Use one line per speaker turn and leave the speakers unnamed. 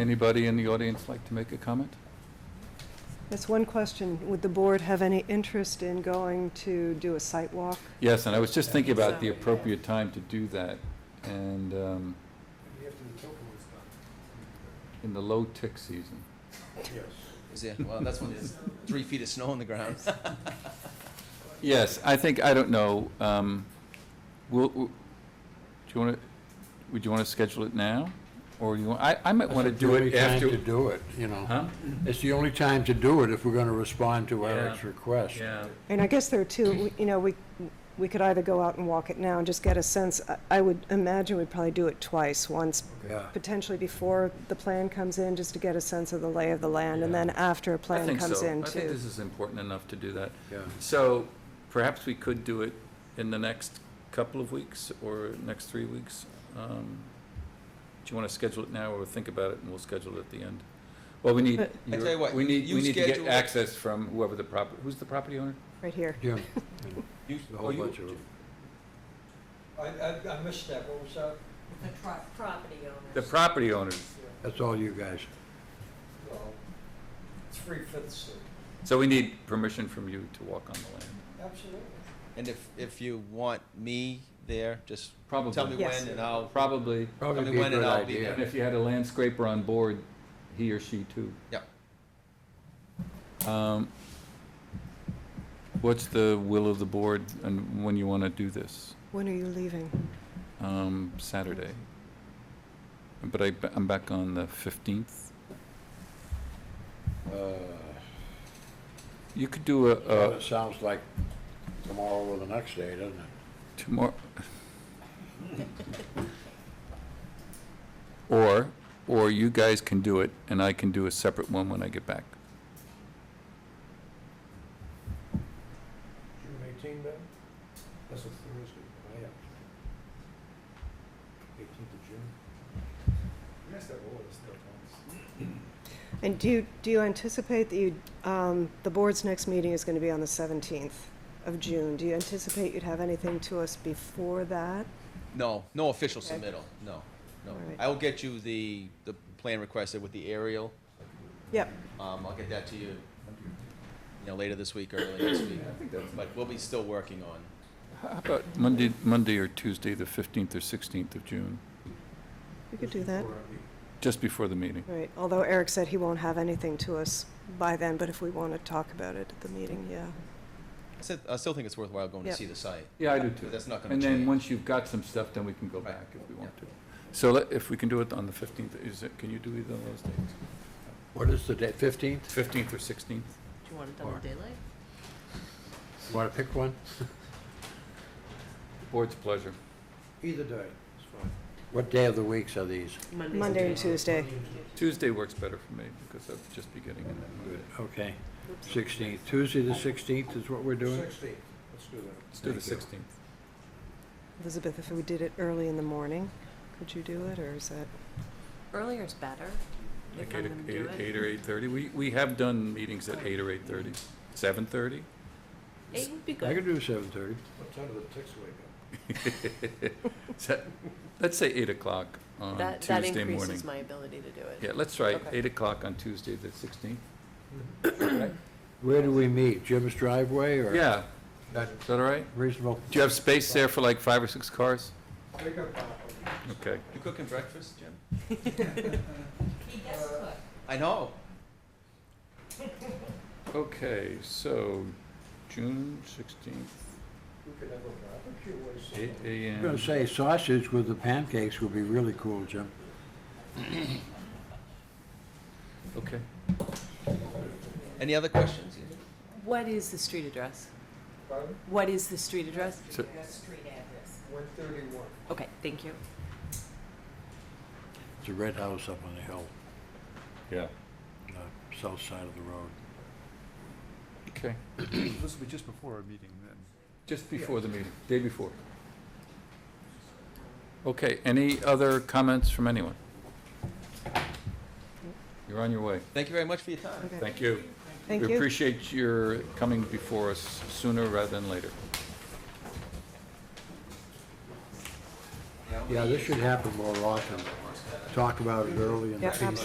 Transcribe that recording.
Anybody in the audience like to make a comment?
That's one question. Would the board have any interest in going to do a site walk?
Yes, and I was just thinking about the appropriate time to do that, and um,
After the token was done.
in the low tick season.
Yes.
Is it, well, that's when there's three feet of snow on the ground.
Yes, I think, I don't know, um, will, will- do you want to, would you want to schedule it now? Or you, I, I might want to do it
It's the only time
after.
to do it, you know.
Huh?
It's the only time to do it if we're going to respond to Eric's
Yeah.
request.
And I guess there are two, we- you know, we, we could either go out and walk it now and just get a sense. I- I would imagine we'd probably do it twice, once
Yeah.
potentially before the plan comes in, just to get a sense of the lay of the land, and
Yeah.
then after a
I
plan
think
comes
so.
in
I think
too.
this is important enough to do that.
Yeah.
So perhaps we could do it in the next couple of weeks or next three weeks. Um, Do you want to schedule it now or think about it and we'll schedule it at the end? Well, we need,
But-
I tell you
your-
what,
we need,
you
we need to get
schedule it.
access from whoever the prop, who's the property owner?
Right here.
Jim,
You-
a
oh,
whole
you-
bunch of them.
I, I, I missed that, what was that?
The pro- property owners.
The property owners.
That's all you guys.
Well, Three fifths,
So we need permission from you to walk on the land.
absolutely.
And if, if you want me there, just tell me
Probably,
when and I'll,
probably.
I
Probably
mean,
be a
when and
good
I'll be
And
idea.
if you had a landscaper on board, he or she too.
Yep.
Um, What's the will of the board and when you want to do this?
When are you leaving?
Um, Saturday. But I, I'm back on the 15th.
Uh,
You could do a, a
It sounds like tomorrow or the next day, doesn't it?
tomorrow. Or, or you guys can do it and I can do a separate one when I get back.
June eighteen, then? That's a Thursday,
Oh,
I have. Eighteenth of June?
Yes, that was, that
And do you, do you anticipate that you, um, the board's next meeting is going to be on the 17th of June. Do you anticipate you'd have anything to us before that?
no, no official
Okay.
submittal, no, no.
All right.
I will get you the, the plan requested with the aerial.
Yep,
Um, I'll get that to you, you know, later this week, early next week. But we'll be still working on,
How about Monday, Monday or Tuesday, the 15th or 16th of June,
we could do that.
just before the meeting?
Right, although Eric said he won't have anything to us by then, but if we want to talk about it at the meeting, yeah.
I said, I still think it's worthwhile going to
Yep.
see the site.
Yeah, I do
But that's not gonna
And then,
change.
once you've got some stuff, then we can go
Right.
back if we want to. So let- if we can do it on the 15th, is it, can you do either of those dates?
What is the date, fifteenth?
15th or 16th?
Do you want it done in daylight?
Want to pick one?
Board's pleasure.
Either day, it's fine. What day of the weeks are these?
Mondays and
Monday and Tuesday.
Tuesday works better for me because I'll just be getting in that mode.
Okay, 16th, Tuesday the 16th is what we're doing?
Sixteen, let's do that.
Let's do the
Thank you.
16th.
Elizabeth, if we did it early in the morning, could you do it, or is that?
Earlier is better.
Like
If I'm
eight
gonna do
o- eight-
it.
eight or 8:30. We, we have done meetings at 8 or 8:30. 7:30?
Eight would be
I could
good.
do 7:30.
What time do the ticks wake up?
Se- Let's say 8 o'clock on
That, that
Tuesday morning.
increases my ability to do it.
Yeah, let's try
Okay.
8 o'clock on Tuesday, the 16th.
Where do we meet? Jim's driveway or?
Yeah,
That
is that all right?
reasonable?
Do you have space there for like five or six cars?
Wake up, uh,
Okay.
You cooking breakfast, Jim?
He does
Uh,
cook.
I know.
Okay, so June sixteenth,
we could have a barbecue or something.
eight
I'm going
AM.
to say sausage with the pancakes would be really cool, Jim.
Okay.
Any other questions?
What is the street address?
Pardon?
What is the street address?
So-
street address.
One thirty-one.
Okay, thank you.
It's a red house up on the hill,
Yeah.
uh, south side of the road.
Okay,
This will be just before our meeting then.
just before the meeting, day before. Okay, any other comments from anyone? You're on your way.
Thank you very much for your time.
Okay.
Thank you.
Thank
We
you.
appreciate your coming before us sooner rather than later.
Yeah, this should happen more often. Talk about it early in the
Yeah,
season.